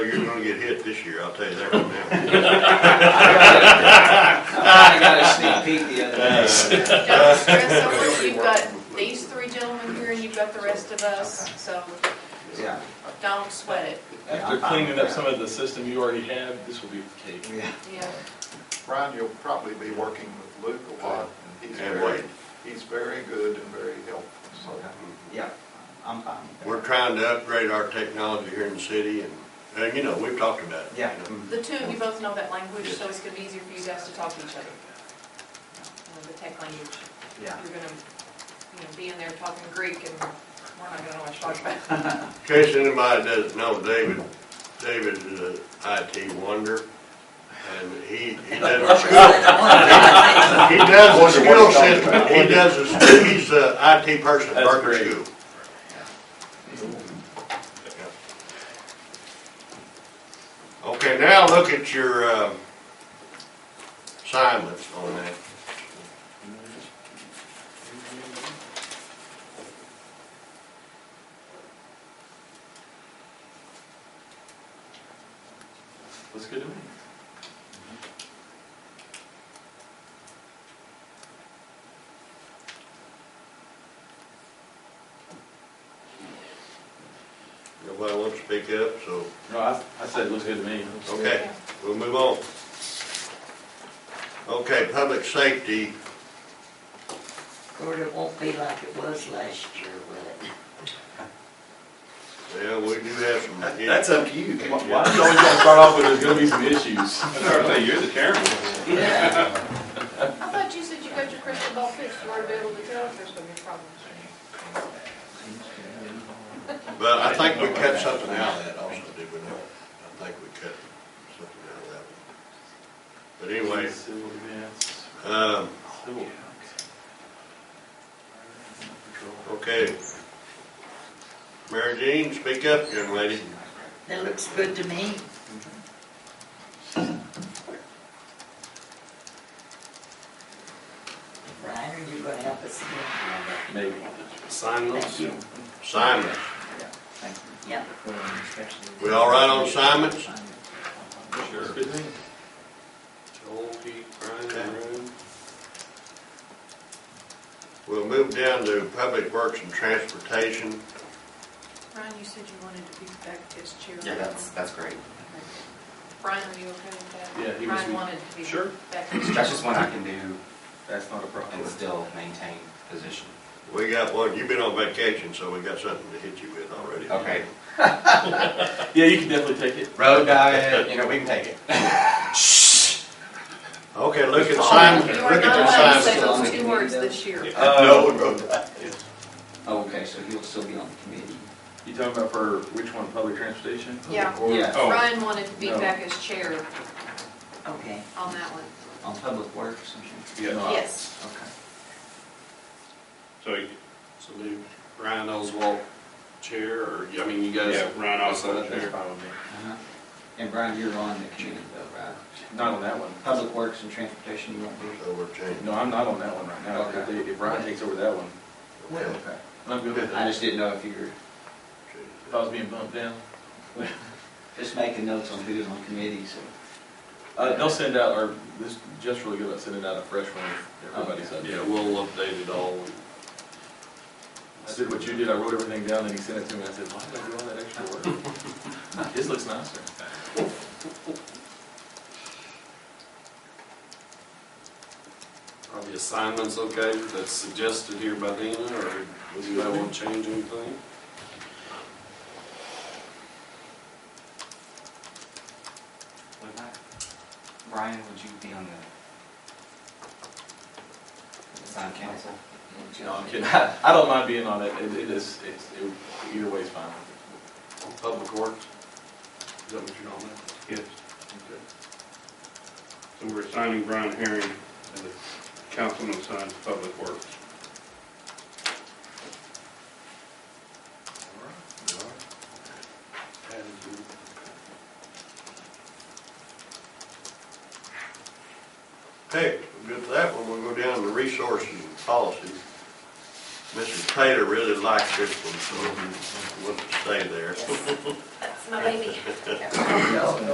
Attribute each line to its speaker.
Speaker 1: you're gonna get hit this year, I'll tell you that right now.
Speaker 2: I got a sneak peek the other day.
Speaker 3: Don't stress over, it. you've got these three gentlemen here and you've got the rest of us, so
Speaker 2: Yeah.
Speaker 3: don't sweat it,
Speaker 4: After cleaning up some of the system you already have, this will be cake.
Speaker 2: Yeah.
Speaker 3: yeah.
Speaker 5: Brian, you'll probably be working with Luke a lot, and he's
Speaker 1: And
Speaker 5: very,
Speaker 1: Wade.
Speaker 5: he's very good and very helpful, so.
Speaker 2: Yeah, I'm fine. with that.
Speaker 1: We're trying to upgrade our technology here in the city and, and you know, we've talked about it. you
Speaker 2: Yeah. Mm-hmm.
Speaker 1: know.
Speaker 3: The two of you both know that language, so it's gonna be easier for you guys to talk to each other. You know, The tech language,
Speaker 2: Yeah.
Speaker 3: you're gonna, you know, be in there talking Greek and we're not gonna know what you're talking about.
Speaker 1: In case anybody doesn't know, David, David is an IT wonder, and he, he does a skill. He does a skill system, he does a, skill- he's a IT person,
Speaker 4: That's
Speaker 1: Berkeley
Speaker 4: great.
Speaker 1: School. Okay, now look at your, um, assignments on that.
Speaker 4: Looks good to me.
Speaker 1: Nobody wants to speak up, so,
Speaker 4: No, I, I said it looks good to me.
Speaker 1: okay. We'll move on. Okay, public safety,
Speaker 6: Lord, it won't be like it was last year, will it?
Speaker 1: yeah, we do have some.
Speaker 4: up to you. Why why do you always gotta start off with there's gonna be some issues?
Speaker 7: you're the chairman.
Speaker 6: Yeah.
Speaker 3: I thought you said you got your crystal ball fixed, you ought to be able to tell if there's gonna be problems.
Speaker 1: But I think we cut something out of that also, did we not? I think we cut something out of that one. But anyway,
Speaker 4: Civil events,
Speaker 1: um,
Speaker 4: civil.
Speaker 1: okay. Mary Jean, speak up, young lady.
Speaker 6: That looks good to me. Brian, are you gonna help us again?
Speaker 4: Maybe.
Speaker 6: Thank you.
Speaker 1: Simon,
Speaker 6: Yep.
Speaker 1: we all right on assignments?
Speaker 4: Looks good to me.
Speaker 1: We'll move down to public works and transportation.
Speaker 3: Brian, you said you wanted to be back as chair.
Speaker 7: Yeah, that's, that's great.
Speaker 3: Brian, are you okay with that?
Speaker 4: Yeah, he was-
Speaker 3: Brian wanted to be
Speaker 4: Sure.
Speaker 3: back as chair.
Speaker 7: That's just one I can do
Speaker 4: That's not a problem.
Speaker 7: and still maintain position.
Speaker 1: We got one, you've been on vacation, so we got something to hit you with already.
Speaker 7: Okay,
Speaker 4: Yeah, you can definitely take it.
Speaker 7: road diet, you know, we can take it.
Speaker 1: Okay, look at Simon,
Speaker 3: You are
Speaker 1: look at
Speaker 3: not
Speaker 1: your
Speaker 3: allowed to
Speaker 1: Simon.
Speaker 3: say
Speaker 2: Simon.
Speaker 3: those two words this year.
Speaker 4: Uh,
Speaker 7: road diet.
Speaker 2: Oh, Okay, so he'll still be on the committee.
Speaker 4: you talking about for which one, public transportation?
Speaker 3: Yeah,
Speaker 2: Yeah.
Speaker 4: Oh.
Speaker 3: Brian wanted to be
Speaker 4: No.
Speaker 3: back as chair
Speaker 2: Okay.
Speaker 3: on that one.
Speaker 2: On public works and shit.
Speaker 4: Yeah. no, I-
Speaker 3: Yes,
Speaker 2: Okay.
Speaker 8: So, so do Ryan Oswald chair, or, I mean, you guys. Yeah, Ryan Oswald
Speaker 4: That's fine with me.
Speaker 2: Uh-huh. And Brian, you're on the committee though, right?
Speaker 4: Not on that one.
Speaker 2: Public works and transportation, you won't be?
Speaker 1: So we're changing.
Speaker 4: No, I'm not on that one right now. If they- If Ryan takes over that one,
Speaker 1: Okay.
Speaker 2: Okay.
Speaker 4: I'm good with
Speaker 2: I
Speaker 4: that.
Speaker 2: just didn't know if you were
Speaker 4: If I was being bumped down.
Speaker 2: just making notes on who's on committees or.
Speaker 4: Uh, they'll send out, or this, Jeff's really good about sending out a fresh one, with everybody's up.
Speaker 8: Yeah, we'll update it all.
Speaker 4: I did what you did, I wrote everything down, and he sent it to me, I said, why did I do all that extra work? This looks nicer.
Speaker 8: Are the assignments okay that's suggested here by Dina, or does anybody want to change anything?
Speaker 7: What about, Brian, would you be on the sign council?
Speaker 4: No, I'm kidding, I don't mind being on it, it, it is, it's, it- either way is fine.
Speaker 8: On Public Works? Is that what you're on there?
Speaker 9: Yes, so we're assigning Brian Herring as the councilman assigned to public works.
Speaker 1: Okay, we'll get to that one, we'll go down to resources and policies. Mrs. Taylor really likes this one, so wants to stay there.
Speaker 3: yes. That's my baby.